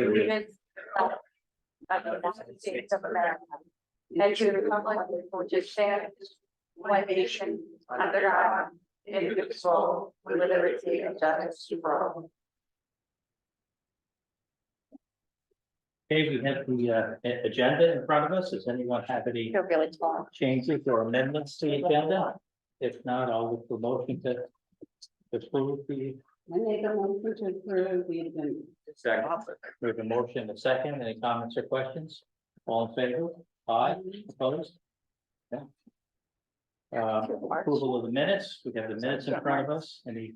United States of the United States of America. And to the republic which is stands one nation under God, indivisible, uh, with liberty and justice for all. Okay, we have the uh a- agenda in front of us. Does anyone have any You're really tall. changes or amendments to the agenda? If not, I'll look for motion to approve the, I make a motion to approve the agenda. Second. we have a motion and a second. Any comments or questions? All in favor? Aye, opposed? Yeah. Uh, approval of the minutes. We have the minutes in front of us. Any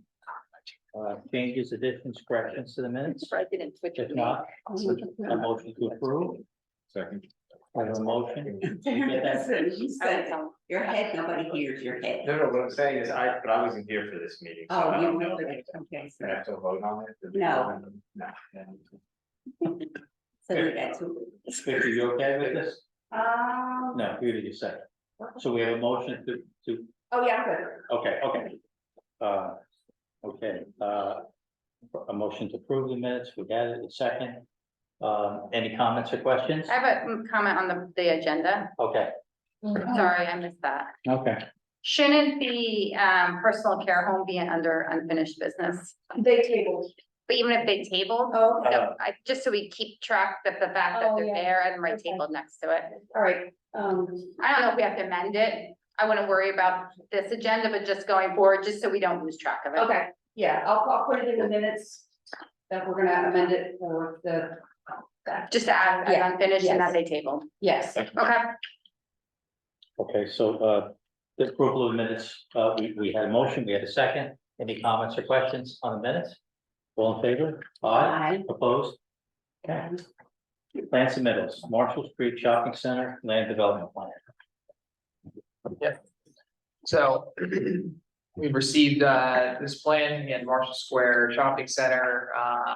uh changes, additions, corrections to the minutes? I didn't switch. If not, a motion to approve. Second. I have a motion. Listen, you said, your head, nobody hears your head. No, no, what I'm saying is I, but I wasn't here for this meeting. so I Oh, you don't know know. that, okay, so I have to vote on it. No. No. yeah. so you got two. Victor, you okay with this? Um. No, you did your second. So we have a motion to, to, Oh, yeah, I'm good. okay, okay. Uh, okay, uh, a motion to approve the minutes, we got it, a second. Um, any comments or questions? I have a mm, comment on the, the agenda. Okay, Sorry, I missed that. okay. Shouldn't the, um, personal care home be under unfinished business? They tabled. But even if they tabled, Oh, okay. Uh, I, just so we keep track of the fact that Oh, they're yeah. there and right Okay. tabled next to it. all right, um, I don't know if we have to amend it. I wouldn't worry about this agenda, but just going forward, just so we don't lose track of it. okay, yeah, I'll, I'll put it in the minutes. That we're gonna amend it for the, Just to add, Yeah, as unfinished yes. and that they tabled. yes, Okay, Okay, so, uh, the approval of minutes, uh, we, we had a motion, we had a second. Any comments or questions on the minutes? All in favor? Aye, Aye. opposed? Okay. Plan submittals, Marshall Street Shopping Center, land development plan. So we've received uh this plan in Marshall Square Shopping Center, uh.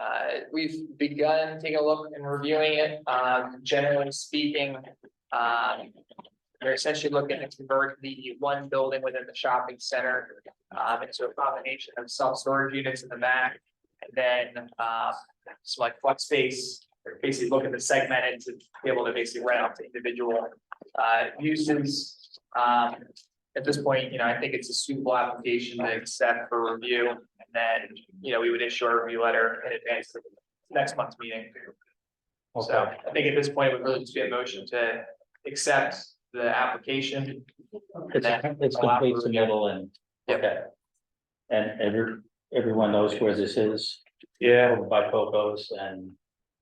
uh, we've begun taking a look and reviewing it, um, generally speaking, um. We're essentially looking to convert the one building within the shopping center, um, into a combination of self-storage units in the back. And then, uh, some like flex space, basically looking to segment it to be able to basically rent out to individual, uh, uses. Um, at this point, you know, I think it's a suitable application to accept for review, and then, you know, we would issue a review letter in advance of next month's meeting. So Okay. I think at this point, it would really just be a motion to accept the application. It's, a- it's complete submittal and, Yep. okay. And every, everyone knows where this is, Yeah. over by Poco's and,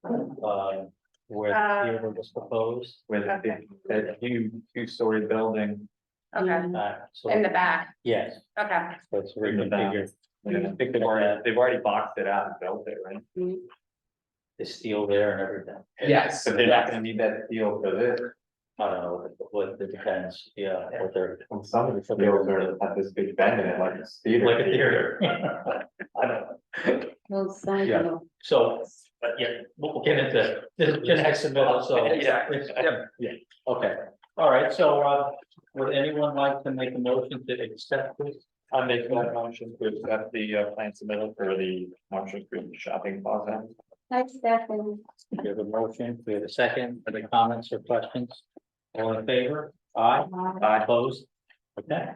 uh, where the theater was proposed. With the, that huge, two-story building. okay. Uh, so, In the back, yes, okay. that's In the back. reconfigured, you know, I think they've already, they've already boxed it out and built it, right? it's steel there and everything. Yes. But they're not gonna need that steel for this. I don't know, what it depends, yeah, what they're, Well, Some of the steels are, have this big bend in it, like a theater. like a theater. I don't know, Well, sign Yeah. off. so, but yeah, we'll we'll get into, the the next submittal, so. Yeah. Yeah, yeah, okay, all right, so, uh, would anyone like to make a motion to accept this? I make that motion to accept the uh, plan submitted for the Marshall Green Shopping Plaza. Thanks, Stephanie. We have a motion, we have a second, any comments or questions? All in favor? Aye, Aye. opposed? Okay.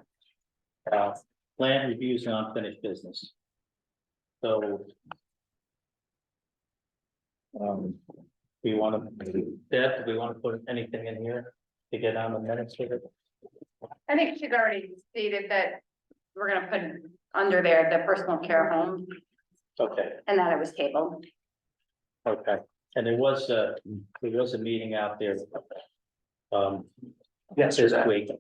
Uh, plan reviews and unfinished business. So Um, we want to, Deb, do we want to put anything in here to get on the minutes with it? I think she's already stated that we're gonna put under there the personal care home Okay, and that it was tabled. okay, and there was a, there was a meeting out there. Um, this Yesterday, week,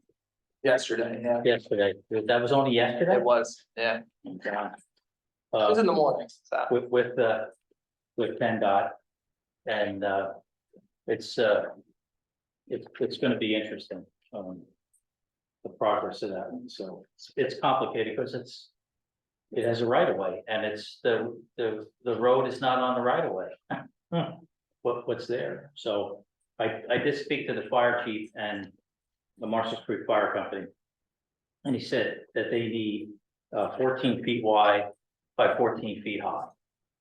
yesterday, yeah, yesterday, that was only yesterday? it was, yeah, it Uh, was in the morning, so. with, with, uh, with PennDOT. And, uh, it's, uh, it's, it's gonna be interesting, um, the progress of that one, so it's- it's complicated because it's, it has a right of way and it's the, the, the road is not on the right of way. Hmm. What, what's there? So I, I did speak to the fire chief and the Marshall Creek Fire Company. And he said that they need, uh, fourteen feet wide by fourteen feet high.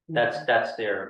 That's, that's their